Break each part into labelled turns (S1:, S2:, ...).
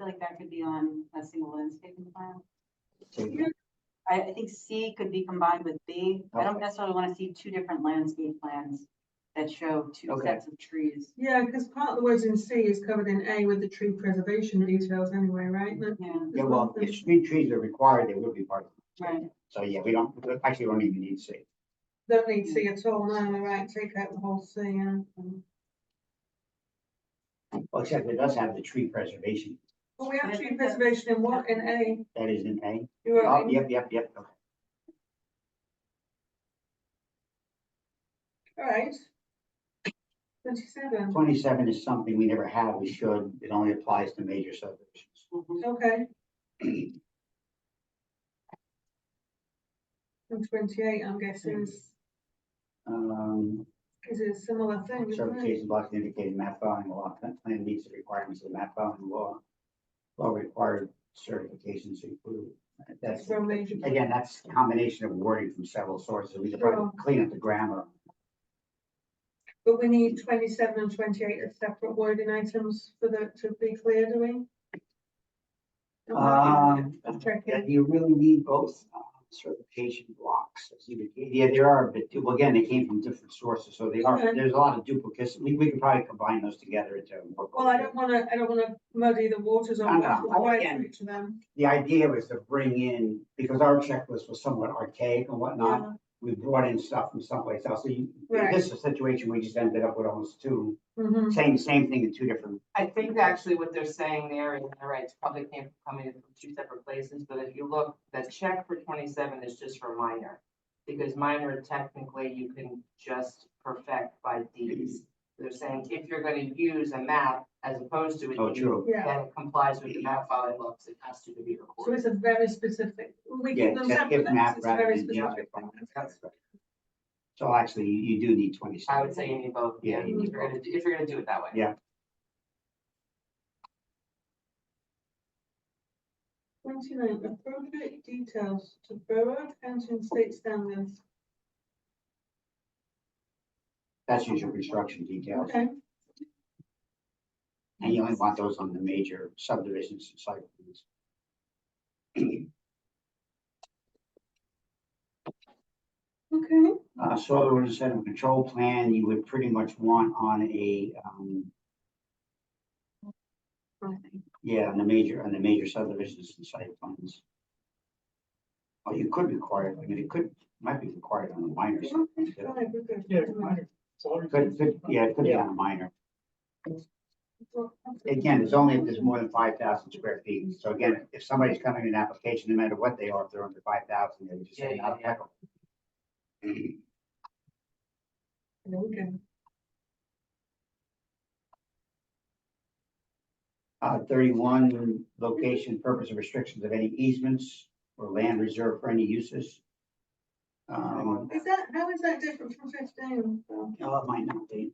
S1: like that could be on a single landscaping plan. I, I think C could be combined with B. I don't necessarily want to see two different landscape plans that show two
S2: Okay.
S1: sets of trees.
S3: Yeah, because part of the words in C is covered in A with the tree preservation details anyway, right? No,
S1: Yeah,
S2: Yeah, well, if street trees are required, they will be part of it.
S1: right.
S2: So, yeah, we don't, actually, we don't even need C.
S3: Don't need C at all, no, you're right, take out the whole C, yeah.
S2: Well, except it does have the tree preservation.
S3: Well, we
S1: I
S3: have tree
S1: think that-
S3: preservation in what, in A?
S2: That is in A.
S3: You're
S2: Oh,
S3: right.
S2: yep, yep, yep. okay.
S3: All right. Twenty-seven,
S2: Twenty-seven is something we never had. We should. It only applies to major subdivisions.
S1: Mhm.
S3: okay. And twenty-eight, I'm guessing, is,
S2: Um,
S3: is a similar thing, isn't it?
S2: certification blocks indicated map filing law, that plan meets the requirements of the map filing law. Law required certifications include. That's,
S3: From major.
S2: again, that's a combination of wording from several sources. We could probably
S3: Sure.
S2: clean up the grammar.
S3: But we need twenty-seven and twenty-eight as separate wording items for the, to be clear, do we?
S2: Um,
S3: I'm checking.
S2: that you really need both uh, certification blocks. as you indicate. Yeah, there are, but well, again, they came from different sources, so they are,
S3: Okay.
S2: there's a lot of duplicates. We, we could probably combine those together into. one
S3: Well, I don't wanna, I don't wanna muddy the waters
S2: No,
S3: on
S2: no,
S3: what's
S2: I
S3: required
S2: understand.
S3: for each of them.
S2: The idea was to bring in, because our checklist was somewhat archaic and whatnot,
S3: Yeah.
S2: we brought in stuff from someplace else. So you,
S3: Right.
S2: this is a situation we just ended up with almost two,
S3: Mhm.
S2: same, same thing in two different.
S4: I think actually what they're saying there is, all right, it's probably came from coming in from two separate places, but if you look, the check for twenty-seven is just for minor. Because minor technically you can just perfect by deeds. They're saying if you're gonna use a map as opposed to
S2: Oh,
S4: a deed,
S2: true.
S3: Yeah,
S4: then it complies with the map filing laws, it has to be
S3: so
S4: recorded.
S3: it's a very specific, we
S2: Yeah,
S3: give them
S2: check if
S3: separate,
S2: map
S3: it's a
S2: rather
S3: very
S2: than just
S3: specific.
S2: requirements. That's right. So actually, you you do need twenty-seven.
S4: I would say you need both, yeah,
S2: Yeah.
S4: if you're gonna, if you're gonna do it that way.
S2: Yeah.
S3: Twenty-nine, appropriate details to borough, county and state standards.
S2: That's usual construction details.
S3: Okay,
S2: And you only want those on the major subdivisions and site plans.
S3: okay,
S2: Uh, soil erosion and control plan, you would pretty much want on a, um, yeah, on the major, on the major subdivisions and site plans. Or you could require, I mean, it could, might be required on the minor.
S3: Yeah,
S2: something,
S3: five, we're good.
S5: Yeah,
S3: Right.
S5: Sorry.
S2: Could, could, yeah, it could be on a minor.
S3: Well,
S2: Again, it's only if there's more than five thousand square feet. So again, if somebody's coming in an application, no matter what they are, if they're under five thousand, they would just say
S4: Yeah, yeah,
S2: not
S4: yeah.
S2: applicable.
S3: There we go.
S2: Uh, thirty-one, location, purpose, and restrictions of any easements or land reserved for any uses. Um,
S3: Is that, how is that different from fifteen? Well,
S2: oh, it might not be.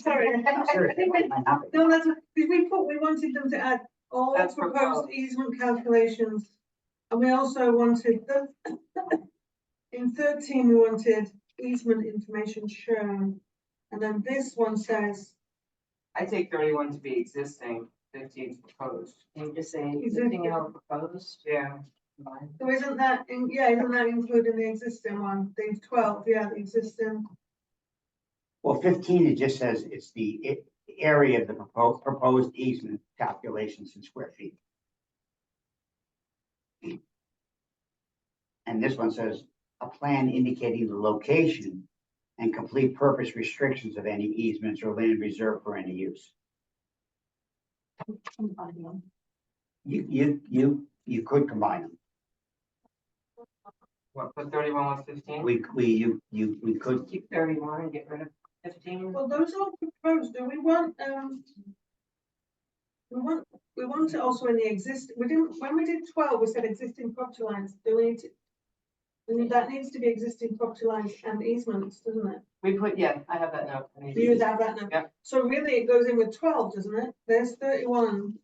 S3: Sorry.
S2: Seriously, it might not be.
S3: No, that's, because we put, we wanted them to add all
S4: That's
S3: proposed
S4: proposed.
S3: easement calculations. And we also wanted the, in thirteen, we wanted easement information shown. And then this one says,
S4: I take thirty-one to be existing, fifteen proposed,
S5: I'm just saying,
S3: Is there-
S5: anything else proposed?
S4: yeah.
S3: so isn't that, in- yeah, isn't that including the existing one, the twelve, yeah, the existing.
S2: Well, fifteen, it just says it's the i- area of the proposed, proposed easement calculations in square feet. And this one says, a plan indicating the location and complete purpose restrictions of any easements or land reserved for any use.
S1: Mm-hmm.
S2: You, you, you, you could combine them.
S4: What, put thirty-one with fifteen?
S2: We, we, you, you, we could,
S4: Keep thirty-one and get rid of fifteen.
S3: Well, those are proposed, do we want, um. We want, we want it also in the exist, we didn't, when we did twelve, we said existing property lines, do we need to? we need- that needs to be existing property lines and easements, doesn't it?
S4: We put, yeah, I have that note. I need to
S3: You would
S4: just-
S3: have that now.
S4: Yeah.
S3: So really, it goes in with twelve, doesn't it? There's thirty-one.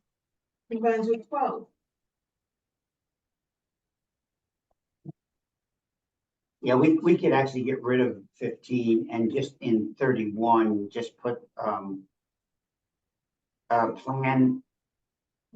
S3: Combines with twelve.
S2: yeah, we, we could actually get rid of fifteen and just in thirty-one, just put, um, a plan